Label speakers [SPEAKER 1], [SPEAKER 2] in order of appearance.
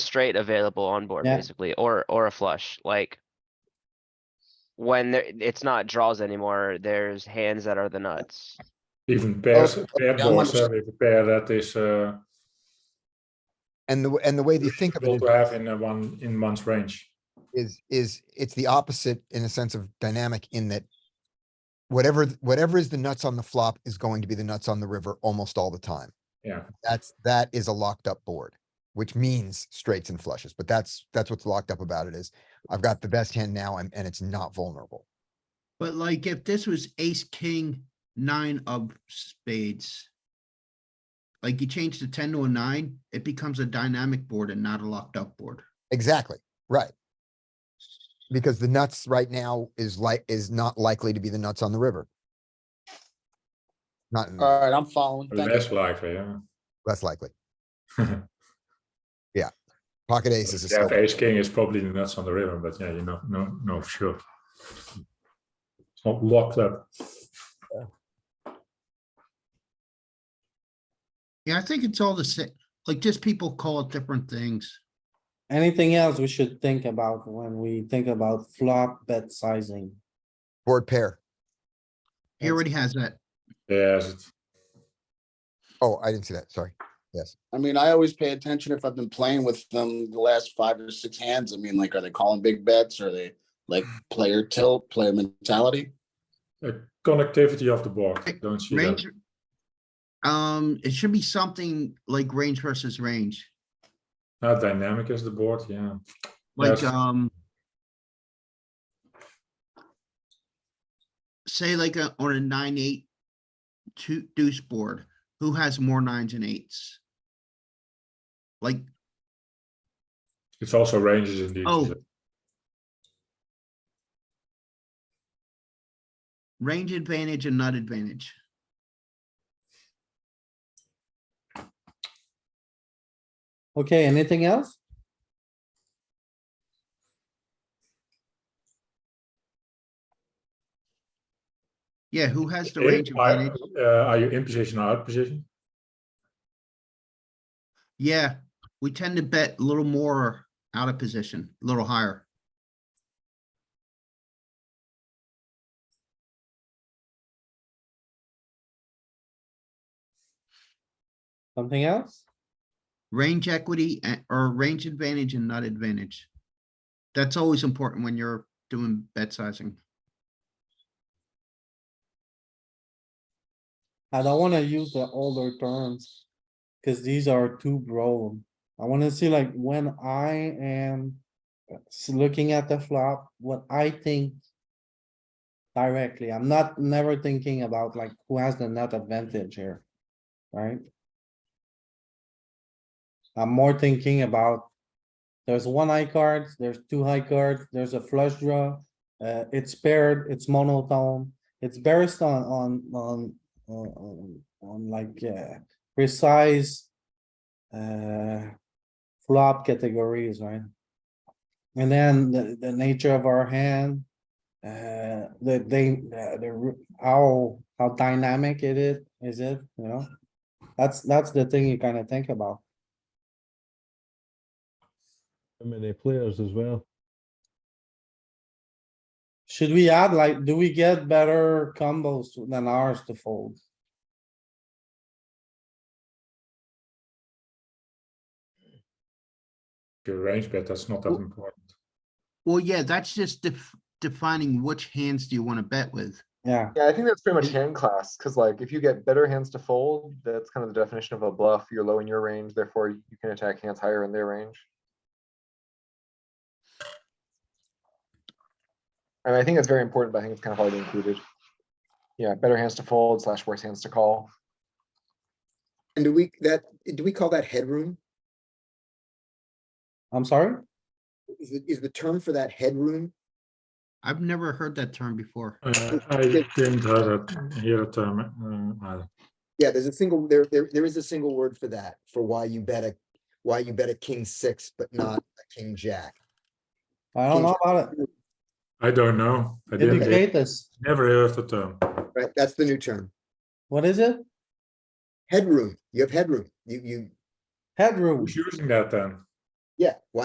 [SPEAKER 1] straight available on board
[SPEAKER 2] Yeah.
[SPEAKER 1] basically, or, or a flush, like. When there, it's not draws anymore, there's hands that are the nuts.
[SPEAKER 3] Even pairs,
[SPEAKER 4] Oh,
[SPEAKER 3] pair
[SPEAKER 4] yeah, I'm
[SPEAKER 5] dus-
[SPEAKER 3] boards, uh, with a pair that is uh,
[SPEAKER 4] And the, w- and the way they think of
[SPEAKER 3] able
[SPEAKER 4] it
[SPEAKER 3] to have in uh, one, in one's range.
[SPEAKER 4] is, is it's the opposite in a sense of dynamic in that whatever, th- whatever is the nuts on the flop is going to be the nuts on the river almost all the time.
[SPEAKER 3] Yeah.
[SPEAKER 4] That's, that is a locked up board, which means straights and flushes, but that's, that's what's locked up about it is I've got the best hand now and, and it's not vulnerable.
[SPEAKER 5] But like if this was ace, king, nine of spades. Like you change the ten to a nine, it becomes a dynamic board and not a locked up board.
[SPEAKER 4] Exactly, right. Because the nuts right now is like, is not likely to be the nuts on the river. Not in-
[SPEAKER 2] All right, I'm following. Thank you.
[SPEAKER 3] Less likely, yeah.
[SPEAKER 4] less likely.
[SPEAKER 3] But
[SPEAKER 4] Pocket aces is
[SPEAKER 3] if you
[SPEAKER 4] still,
[SPEAKER 3] have ace king is probably nuts on the river, but yeah, you know, no, no, for sure. It's not locked up.
[SPEAKER 5] Yeah, I think it's all the same. Like just people call it different things.
[SPEAKER 2] Anything else we should think about when we think about flop bet sizing?
[SPEAKER 4] board pair.
[SPEAKER 5] He already has that.
[SPEAKER 3] Yes, it-
[SPEAKER 4] Oh, I didn't see that, sorry.
[SPEAKER 6] I mean, I always pay attention if I've been playing with them the last five or six hands. I mean, like, are they calling big bets? Are they like player tilt, player mentality?
[SPEAKER 3] uh, connectivity of the board, don't see that.
[SPEAKER 5] Range. Um, it should be something like range versus range,
[SPEAKER 3] How dynamic is the board, yeah.
[SPEAKER 5] like,
[SPEAKER 3] Yes.
[SPEAKER 5] um. Say like a, on a nine, eight, two deuce board, who has more nines and eights? Like,
[SPEAKER 3] It's also ranges indeed.
[SPEAKER 5] oh. Range advantage and nut advantage.
[SPEAKER 2] Okay, anything else?
[SPEAKER 5] Yeah, who has the
[SPEAKER 3] If-
[SPEAKER 5] range
[SPEAKER 3] are-
[SPEAKER 5] advantage?
[SPEAKER 3] uh, Are you in position or out position?
[SPEAKER 5] Yeah, we tend to bet a little more out of position, a little higher.
[SPEAKER 2] Something else?
[SPEAKER 5] Range equity a- or range advantage and not advantage. That's always important when you're doing bet sizing.
[SPEAKER 2] I don't wanna use the older terms. Cause these are too broad. I wanna see like when I am s- looking at the flop, what I think. Directly, I'm not never thinking about like who has the nut advantage here, right? I'm more thinking about. There's one high card, there's two high cards, there's a flush draw, uh, it's paired, it's monotone. It's based on, on, on on, on, on like, uh, precise. Uh, flop categories, right? And then the, the nature of our hand. Uh, the, they, uh, the, ru- how, how dynamic it is, is it, you know? That's, that's the thing you kinda think about.
[SPEAKER 7] How many players as well?
[SPEAKER 2] Should we add like, do we get better combos than ours to fold?
[SPEAKER 3] Your range bet, that's not that
[SPEAKER 5] Oh.
[SPEAKER 3] important.
[SPEAKER 5] Well, yeah, that's just def- defining which hands do you want to bet with.
[SPEAKER 2] Yeah,
[SPEAKER 8] Yeah, I think that's pretty much hand class, because like if you get better hands to fold, that's kind of the definition of a bluff. You're low in your range, therefore you can attack hands higher in their range. And I think that's very important, but I think it's kind of hardly included. Yeah, better hands to fold slash worse hands to call.
[SPEAKER 4] And do we, that, do we call that headroom?
[SPEAKER 2] I'm sorry?
[SPEAKER 4] Is, the- is the term for that headroom?
[SPEAKER 5] I've never heard that term before.
[SPEAKER 3] Uh, I didn't hear that, hear the term, uh, either.
[SPEAKER 4] Yeah, there's a single, there, there, there is a single word for that, for why you bet a, why you bet a king six, but not a king jack.
[SPEAKER 2] I don't know about it.
[SPEAKER 3] I don't know. I didn't,
[SPEAKER 2] Educate us.
[SPEAKER 3] never heard the term.
[SPEAKER 4] Right, that's the new term.
[SPEAKER 2] What is it?
[SPEAKER 4] Headroom, you have headroom. You, you,
[SPEAKER 2] Headroom.
[SPEAKER 3] Who's using that then?
[SPEAKER 6] Yeah.
[SPEAKER 4] Why